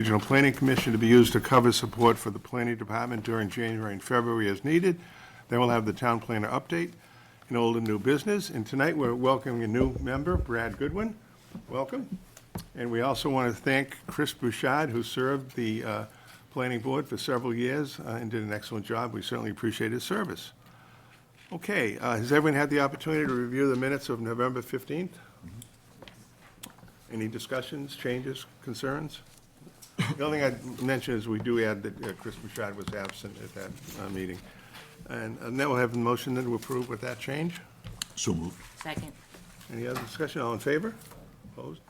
Regional Planning Commission to be used to cover support for the planning department during January and February as needed. Then we'll have the town planner update and old and new business. And tonight, we're welcoming a new member, Brad Goodwin. Welcome. And we also want to thank Chris Bouchard, who served the uh, planning board for several years uh, and did an excellent job. We certainly appreciate his service. Okay, uh, has everyone had the opportunity to review the minutes of November 15th? Any discussions, changes, concerns? The only thing I'd mention is we do add that uh, Chris Bouchard was absent at that uh, meeting. And and now we'll have a motion then to approve with that change. So moved. Second. Any other discussion? All in favor? Opposed?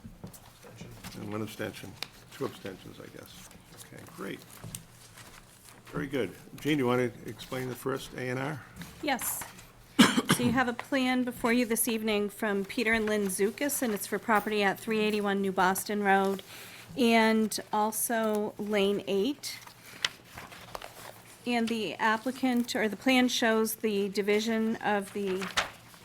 And one abstention. Two abstentions, I guess. Okay, great. Very good. Gene, you want to explain the first A and R? Yes. So you have a plan before you this evening from Peter and Lynn Zoukis, and it's for property at 381 New Boston Road and also Lane 8. And the applicant, or the plan shows the division of the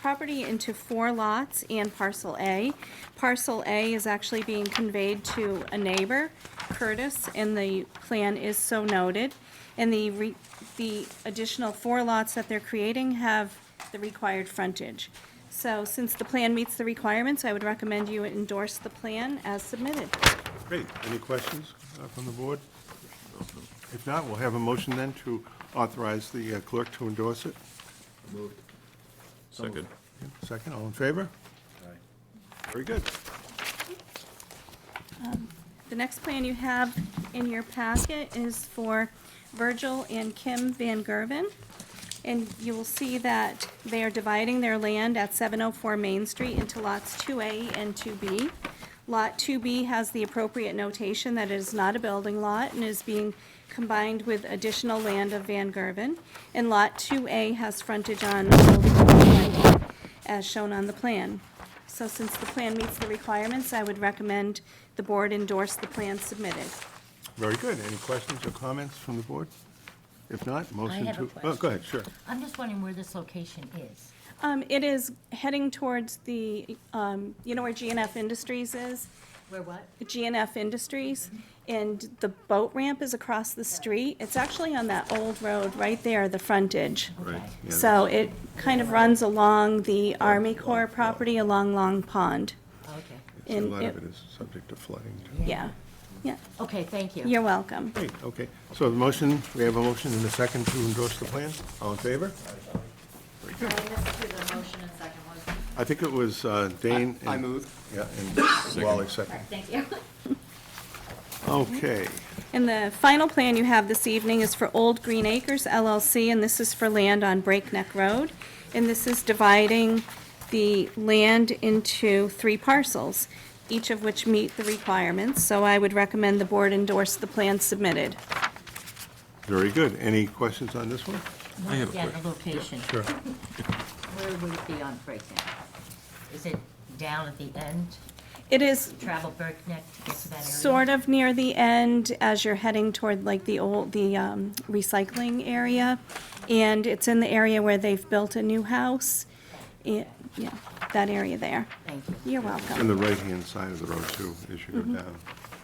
property into four lots and parcel A. Parcel A is actually being conveyed to a neighbor, Curtis, and the plan is so noted. And the, re- the additional four lots that they're creating have the required frontage. So since the plan meets the requirements, I would recommend you endorse the plan as submitted. Great. Any questions uh, from the board? If not, we'll have a motion then to authorize the uh, clerk to endorse it. Second. Second, all in favor? Very good. The next plan you have in your packet is for Virgil and Kim Van Gerven. And you will see that they are dividing their land at 704 Main Street into lots 2A and 2B. Lot 2B has the appropriate notation that it is not a building lot and is being combined with additional land of Van Gerven. And Lot 2A has frontage on Old Colonial as shown on the plan. So since the plan meets the requirements, I would recommend the board endorse the plan submitted. Very good. Any questions or comments from the board? If not, motion to... have a Oh, go ahead, sure. I'm just wondering where this location is. Um, It is heading towards the, um, you know where GNF Industries is? Where what? GNF Industries, and the boat ramp is across the street. It's actually on that old road right there, the frontage. Right. So it kind of runs along the Army Corps property along Long Pond. Oh, Okay. A And lot of it is subject to flooding, too. Yeah, yeah. Okay, thank you. You're welcome. Great, okay. So the motion, we have a motion and a second to endorse the plan. All in favor? Very good. the motion and second one. I think it was uh, Dane. I and- move. Yeah, and Wally second. Thank you. Okay. And the final plan you have this evening is for Old Green Acres LLC, and this is for land on Breakneck Road. And this is dividing the land into three parcels, each of which meet the requirements. So I would recommend the board endorse the plan submitted. Very good. Any questions on this one? I have a Yeah, question. the location. Sure. Where would it be on Breakneck? Is it down at the end, It is travel Breakneck to get to that area? sort of near the end as you're heading toward like the old, the um, recycling area. And it's in the area where they've built a new house. Yeah, yeah, that area there. Thank you. You're On welcome. the right-hand side of the road, too, as you go down.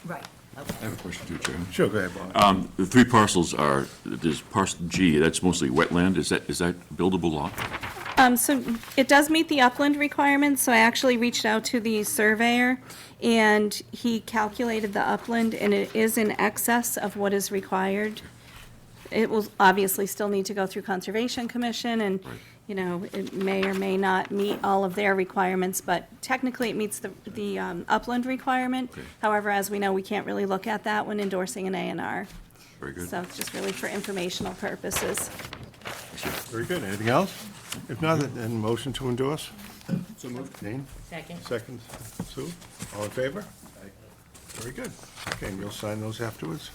Right, okay. I have a question too, Chairman. Sure, go ahead, Wally. Uh, Um, the three parcels are, there's parcel G, that's mostly wetland, is that, is that buildable lot? Um, so it does meet the upland requirements, so I actually reached out to the surveyor, and he calculated the upland, and it is in excess of what is required. It will obviously still need to go through Conservation Commission, and, you know, it may or may not meet all of their requirements, but technically it meets the, the um, upland requirement. However, as we know, we can't really look at that when endorsing an A and R. Very good. So it's just really for informational purposes. Very good. Anything else? If not, then motion to endorse. So moved. Dane? Second. Second, Sue, all in favor? Very good. Okay, and you'll sign those afterwards?